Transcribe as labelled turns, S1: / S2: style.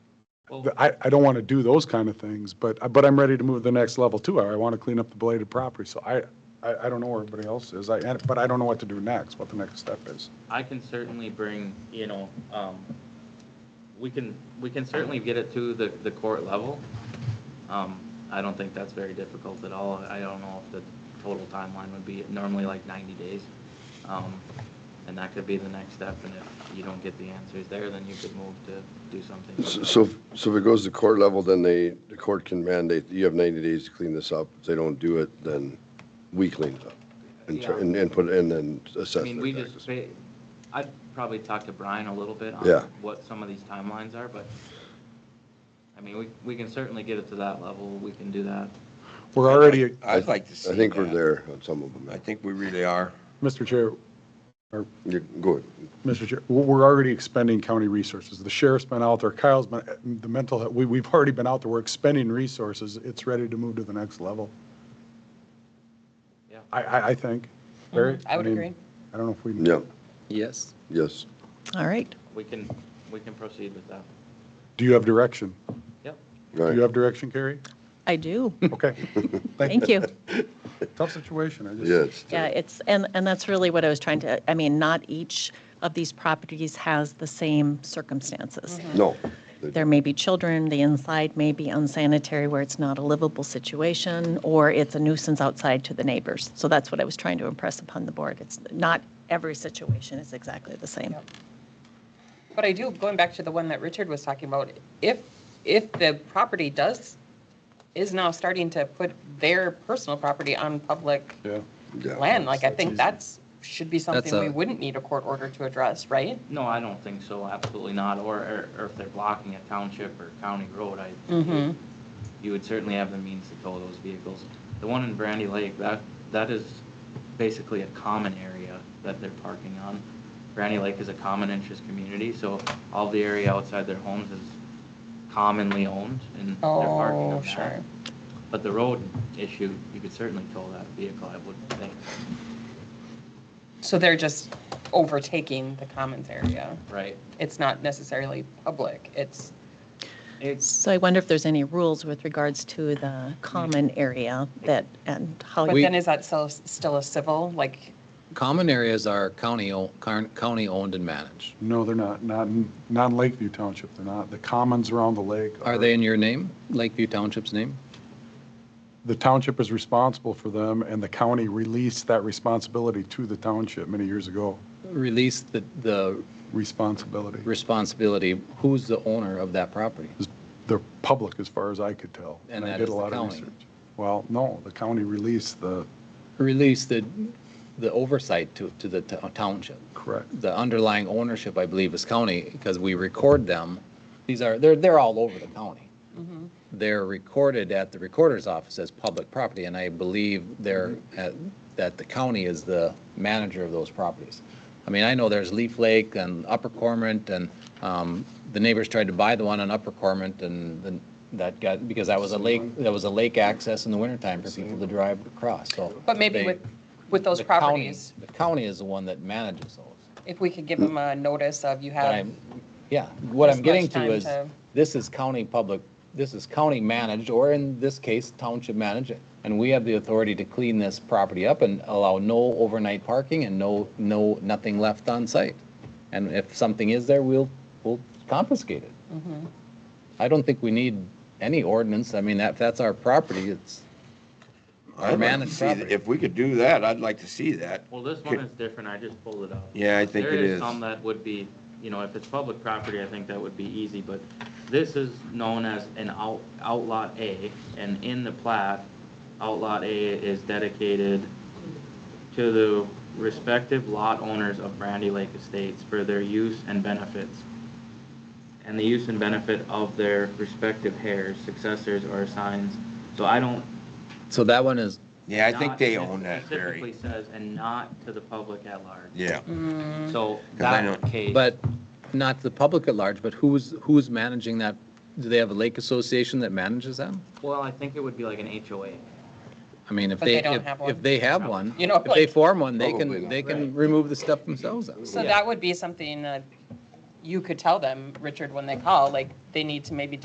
S1: the- I, I don't want to do those kind of things, but, but I'm ready to move to the next level too. I want to clean up the belated property. So I, I, I don't know where everybody else is, I, and- but I don't know what to do next, what the next step is.
S2: I can certainly bring, you know, um, we can, we can certainly get it to the, the court level. Um, I don't think that's very difficult at all. I don't know if the total timeline would be normally like ninety days. Um, and that could be the next step, and if you don't get the answers there, then you could move to do something.
S3: So, so if it goes to court level, then they, the court can mandate, you have 90 days to clean this up. If they don't do it, then we clean it up and try- and, and put, and then
S2: I
S3: assess
S2: mean, we
S3: their
S2: just,
S3: practice.
S2: ba- I'd probably talk to Brian a little bit on
S3: Yeah.
S2: what some of these timelines are, but, I mean, we, we can certainly get it to that level, we can do that.
S1: We're already,
S4: I'd like to see
S3: I think we're
S4: that.
S3: there on some of them.
S4: I think we really are.
S1: Mr. Chair,
S3: You're good.
S1: Mr. Chair, we're- we're already expending county resources. The sheriff's been out there, Kyle's been, the mental, health- we, we've already been out there, we're expending resources. It's ready to move to the next level.
S2: Yeah.
S1: I, I, I think. Barry?
S5: Mm, I would
S1: mean,
S5: agree.
S1: I don't know if we.
S3: Yeah,
S6: Yes.
S3: yes.
S5: All right.
S2: We can, we can proceed with that.
S1: Do you have direction?
S2: Yep.
S1: Do
S3: Right.
S1: you have direction, Carrie?
S5: I do.
S1: Okay.
S5: Thank you.
S1: Tough situation, I just.
S3: Yeah, it's,
S5: Yeah, it's, and, and that's really what I was trying to, I mean, not each of these properties has the same circumstances.
S3: no.
S5: There may be children, the inside may be unsanitary where it's not a livable situation, or it's a nuisance outside to the neighbors. So that's what I was trying to impress upon the board. It's not every situation is exactly the same.
S7: But I do, going back to the one that Richard was talking about, if, if the property does, is now starting to put their personal property on public
S1: Yeah.
S3: Yeah.
S7: land, like I think that's, should be something we
S6: a-
S7: wouldn't need a court order to address, right?
S2: No, I don't think so, absolutely not, or, or- or if they're blocking a township or county road, I,
S7: Mm-hmm.
S2: you would certainly have the means to tow those vehicles. The one in Brandy Lake, that, that is basically a common area that they're parking on. Brandy Lake is a common interest community, so all the area outside their homes is commonly owned and they're parking
S7: Oh,
S2: on
S7: sure.
S2: that. But the road issue, you could certainly tow that vehicle, I would think,
S7: So they're just overtaking the commons area.
S2: right?
S7: It's not necessarily public, it's,
S2: It's,
S5: So I wonder if there's any rules with regards to the common area that, and how.
S7: but then is that still, still a civil, like,
S6: Common areas are county, o- car- county owned and managed.
S1: No, they're not, not, in- not in Lakeview Township, they're not. The commons around the lake.
S6: Are they in your name, Lakeview Township's name?
S1: The township is responsible for them, and the county released that responsibility to the township many years ago.
S6: Release the, the
S1: Responsibility.
S6: responsibility, who's the owner of that property?
S1: The public, as far as I could tell.
S6: And
S1: I
S6: that
S1: did
S6: is
S1: a
S6: the
S1: lot of
S6: county.
S1: research. Well, no, the county released the,
S6: Release the, the oversight to, to the to- township.
S1: correct.
S6: The underlying ownership, I believe, is county, because we record them. These are, they're, they're all over the county.
S7: Mm-hmm.
S6: They're recorded at the recorder's office as public property, and I believe they're,
S7: Mm-hmm.
S6: at- that the county is the manager of those properties. I mean, I know there's Leaf Lake and Upper Cormorant, and um, the neighbors tried to buy the one on Upper Cormorant, and then that got, because that was a lake, that was a lake access in the wintertime for people to drive across, so.
S7: but maybe
S6: they-
S7: with, with those
S6: the county-
S7: properties,
S6: The county is the one that manages those.
S7: if we could give them a notice of you
S6: But
S7: have.
S6: I'm, yeah, what
S7: As
S6: I'm
S7: much
S6: getting to
S7: time
S6: is,
S7: to-
S6: this is county public, this is county managed, or in this case, township managed, and we have the authority to clean this property up and allow no overnight parking and no, no, nothing left on site. And if something is there, we'll, we'll confiscate it.
S7: Mm-hmm.
S6: I don't think we need any ordinance, I mean, that, that's our property, it's
S4: I'd
S6: our
S4: like to
S6: managed
S4: see that-
S6: property.
S4: If we could do that, I'd like to see that.
S2: well, this one is different, I just pulled it up.
S4: Yeah, I think it
S2: There is
S4: is.
S2: some that would be, you know, if it's public property, I think that would be easy, but this is known as an out, outlot A, and in the plat, outlot A is dedicated to the respective lot owners of Brandy Lake Estates for their use and benefits, and the use and benefit of their respective heirs, successors, or assigns. So I don't,
S6: So that one is,
S4: Yeah, I think
S2: not-
S4: they
S2: it
S4: own that,
S2: Specifically
S4: Barry.
S2: says, and not to the public at large.
S4: Yeah,
S2: So
S4: I
S2: that
S4: know-
S2: case.
S6: But not the public at large, but who's, who's managing that? Do they have a lake association that manages them?
S2: Well, I think it would be like an HOA.
S6: I mean, if
S7: But they
S6: they,
S7: don't
S6: if,
S7: have
S6: if
S7: one.
S6: they have one,
S7: You know,
S6: if they
S7: like-
S6: form one, they
S3: Probably
S6: can,
S3: not.
S6: they
S2: Right.
S6: can remove the stuff themselves. out.
S7: So
S2: Yeah.
S7: that would be something that you could tell them, Richard, when they call, like, they need to maybe